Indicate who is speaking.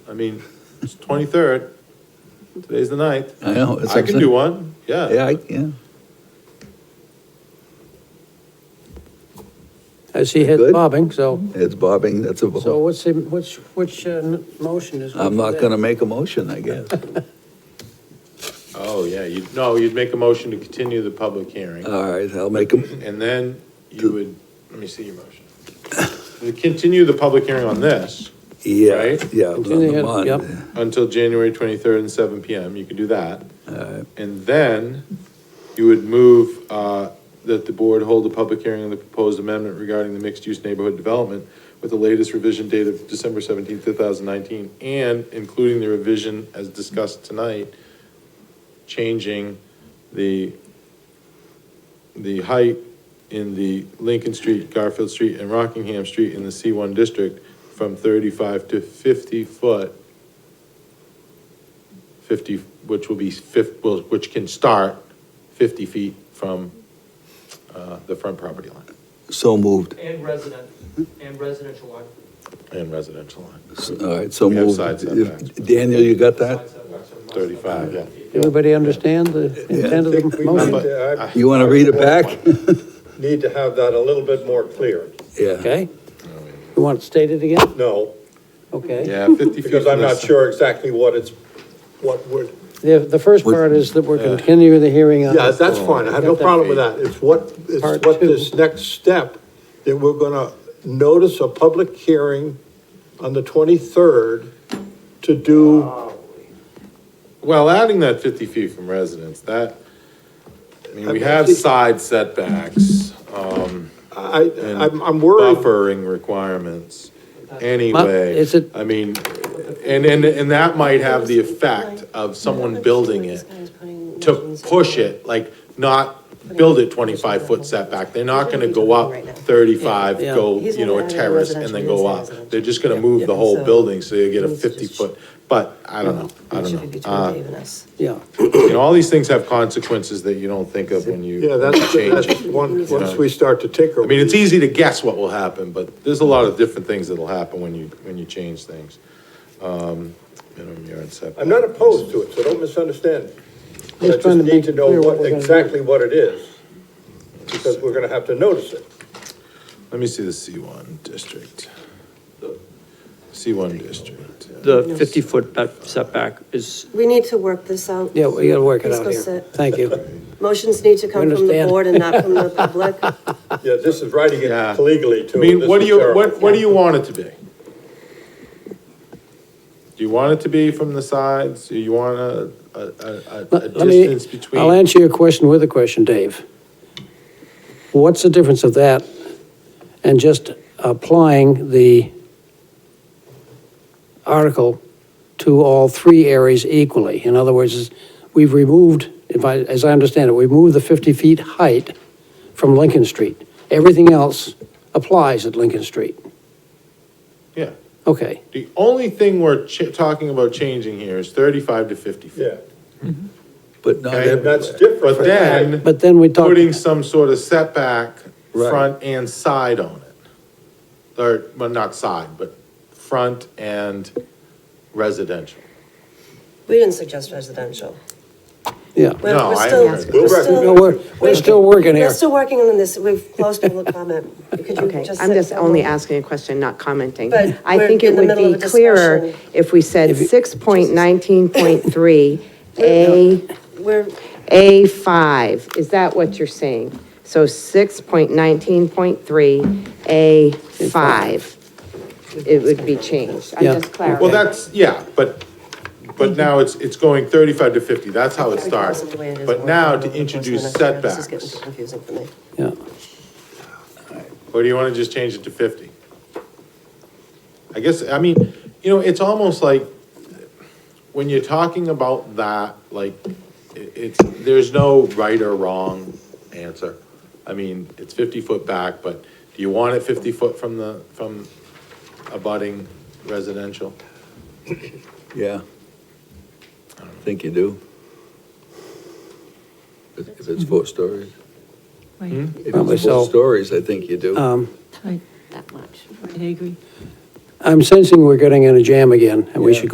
Speaker 1: I mean, it's twenty-third, today's the ninth.
Speaker 2: I know. it's
Speaker 1: I can
Speaker 2: upset-
Speaker 1: do one,
Speaker 2: Yeah,
Speaker 1: yeah.
Speaker 2: I, yeah.
Speaker 3: I see head
Speaker 2: Good. Uh-huh.
Speaker 3: bobbing, so,
Speaker 2: It's bobbing, that's a,
Speaker 3: so
Speaker 2: ball.
Speaker 3: what's, the- which, which uh, n- motion is?
Speaker 2: I'm not gonna make a motion, I guess.
Speaker 1: Oh, yeah, you, no, you'd make a motion to continue the public hearing,
Speaker 2: All right, I'll make a,
Speaker 1: and then you would, let me see your motion. You Continue the public hearing on this
Speaker 2: yeah,
Speaker 1: Right?
Speaker 2: yeah. on the
Speaker 3: Continue, yep.
Speaker 2: bond.
Speaker 1: until January twenty-third and seven PM, you could do that.
Speaker 2: All right,
Speaker 1: And then you would move uh, that the board hold a public hearing on the proposed amendment regarding the mixed-use neighborhood development with the latest revision date of December seventeenth, two thousand nineteen, and including the revision as discussed tonight, changing the, the height in the Lincoln Street, Garfield Street, and Rockingham Street in the C one district from thirty-five to fifty foot 50, which will be fif, will- which can start 50 feet from uh, the front property line
Speaker 2: so moved.
Speaker 4: And resident, and residential line.
Speaker 1: and residential line.
Speaker 2: All right, so
Speaker 1: We have
Speaker 2: moved.
Speaker 1: side setbacks.
Speaker 2: If- Daniel, you got that?
Speaker 4: side setbacks are less than
Speaker 1: 35, yeah.
Speaker 3: Everybody understand the intent of the
Speaker 5: We need
Speaker 3: motion?
Speaker 5: to, I
Speaker 2: You wanna read it back?
Speaker 5: need to have that a little bit more clear.
Speaker 2: Yeah,
Speaker 3: Okay? You want it stated again?
Speaker 5: No,
Speaker 3: Okay.
Speaker 1: Yeah, 50 feet.
Speaker 5: because I'm
Speaker 1: from the
Speaker 5: not
Speaker 1: s-
Speaker 5: sure exactly what it's, what would.
Speaker 3: The, the first
Speaker 2: With-
Speaker 3: part is that we're continuing the hearing on.
Speaker 5: Yeah, that's fine. I have no problem with that. It's what, it's
Speaker 3: Part
Speaker 5: what
Speaker 3: two.
Speaker 5: this next step, that we're gonna notice a public hearing on the twenty-third to do,
Speaker 1: Well, adding that 50 feet from residence, that, I mean,
Speaker 5: I
Speaker 1: we
Speaker 5: mean,
Speaker 1: have
Speaker 5: actually-
Speaker 1: side setbacks um,
Speaker 5: I,
Speaker 1: and
Speaker 5: I'm, I'm worried.
Speaker 1: buffering requirements anyway.
Speaker 3: is it-
Speaker 1: I mean, and, and, and that might have the effect of someone building it to push it, like not build it twenty-five foot setback. They're not gonna go up thirty-five,
Speaker 3: Yeah.
Speaker 1: go,
Speaker 6: He's
Speaker 1: you know, a
Speaker 6: gonna add
Speaker 1: terrace and
Speaker 6: residential
Speaker 1: then
Speaker 6: in
Speaker 1: go
Speaker 6: his
Speaker 1: up.
Speaker 6: residential.
Speaker 1: They're just gonna move the whole
Speaker 6: So-
Speaker 1: building, so you get a
Speaker 6: Means it's
Speaker 1: fifty
Speaker 6: just-
Speaker 1: foot, but I don't know, Uh, I
Speaker 6: It should be
Speaker 1: don't know.
Speaker 6: between Dave and us.
Speaker 3: Yeah,
Speaker 1: You know, all these things have consequences that you don't think of when you
Speaker 5: Yeah, that's,
Speaker 1: change
Speaker 5: that's,
Speaker 1: it.
Speaker 5: once, once we start to tinker.
Speaker 1: I mean, it's easy to guess what will happen, but there's a lot of different things that'll happen when you, when you change things. Um, minimum yard setback.
Speaker 5: I'm not opposed to it, so don't misunderstand. me. I
Speaker 3: Just
Speaker 5: just
Speaker 3: trying to
Speaker 5: need
Speaker 3: make
Speaker 5: to know
Speaker 3: clear what
Speaker 5: what,
Speaker 3: we're gonna do.
Speaker 5: exactly what it is, because we're gonna have to notice it.
Speaker 1: Let me see the C one district. C one district. yeah.
Speaker 7: The 50-foot back- setback is,
Speaker 6: We need to work this out.
Speaker 3: yeah, we gotta work it
Speaker 6: Let's
Speaker 3: out
Speaker 6: go
Speaker 3: here.
Speaker 6: sit.
Speaker 3: Thank you.
Speaker 6: Motions need to come from the
Speaker 3: Understand.
Speaker 6: board and not from the public.
Speaker 5: Yeah, this is writing
Speaker 1: Yeah.
Speaker 5: it legally too.
Speaker 1: I mean,
Speaker 5: This
Speaker 1: what do
Speaker 5: is
Speaker 1: you,
Speaker 5: terrible.
Speaker 1: what, what do you want it to be? Do you want it to be from the sides? Do you want a, a, a- a, a
Speaker 3: Let- let me-
Speaker 1: distance between?
Speaker 3: I'll answer your question with a question, Dave. What's the difference of that and just applying the article to all three areas equally? In other words, is- we've removed, if I, as I understand it, we moved the 50 feet height from Lincoln Street. Everything else applies at Lincoln Street.
Speaker 1: Yeah,
Speaker 3: Okay,
Speaker 1: the only thing we're ch- talking about changing here is thirty-five to fifty feet.
Speaker 5: Yeah,
Speaker 2: but not
Speaker 1: Okay.
Speaker 2: every,
Speaker 5: that's different.
Speaker 1: But
Speaker 5: from-
Speaker 1: then,
Speaker 3: but then we talk.
Speaker 1: putting some sort of setback,
Speaker 2: Right.
Speaker 1: front and side on it. Or, well, not side, but front and residential.
Speaker 6: We didn't suggest residential.
Speaker 3: Yeah.
Speaker 6: We're-
Speaker 1: No,
Speaker 6: we're
Speaker 1: I
Speaker 6: still-
Speaker 1: agree.
Speaker 6: we're
Speaker 5: We'll
Speaker 6: still-
Speaker 3: No, we're, we're still working here.
Speaker 6: We're still working on this. We've closed public comment. Could you
Speaker 8: Okay,
Speaker 6: just
Speaker 8: I'm
Speaker 6: sit
Speaker 8: just
Speaker 6: for a
Speaker 8: only
Speaker 6: moment?
Speaker 8: asking a question, not commenting.
Speaker 6: But
Speaker 8: I
Speaker 6: we're
Speaker 8: think
Speaker 6: in
Speaker 8: it
Speaker 6: the
Speaker 8: would
Speaker 6: middle
Speaker 8: be
Speaker 6: of a
Speaker 8: clearer
Speaker 6: discussion.
Speaker 8: if we said six point nineteen point three, A,
Speaker 6: We're,
Speaker 8: A five. Is that what you're saying? So six point nineteen point three, A five. It would be changed. I'm
Speaker 3: Yeah.
Speaker 8: just clarifying.
Speaker 1: Well, that's, yeah, but, but now it's, it's going thirty-five to fifty, that's how it starts.
Speaker 6: the way it is
Speaker 1: But
Speaker 6: working
Speaker 1: now
Speaker 6: over
Speaker 1: to
Speaker 6: the course of
Speaker 1: introduce
Speaker 6: the next year, This is getting
Speaker 1: setbacks,
Speaker 6: too confusing for me.
Speaker 3: Yeah.
Speaker 1: or do you wanna just change it to fifty? I guess, I mean, you know, it's almost like, when you're talking about that, like, it, it's, there's no right or wrong answer. I mean, it's fifty foot back, but do you want it fifty foot from the, from abutting residential?
Speaker 2: yeah. I don't think you do. If if it's four stories.
Speaker 1: Hmm?
Speaker 9: Right,
Speaker 2: If
Speaker 3: Probably
Speaker 2: it's four
Speaker 3: so. Uh,
Speaker 2: stories, I think you do.
Speaker 9: tight. That much. I agree.
Speaker 3: I'm sensing we're getting in a jam again, and we
Speaker 2: Yeah.
Speaker 3: should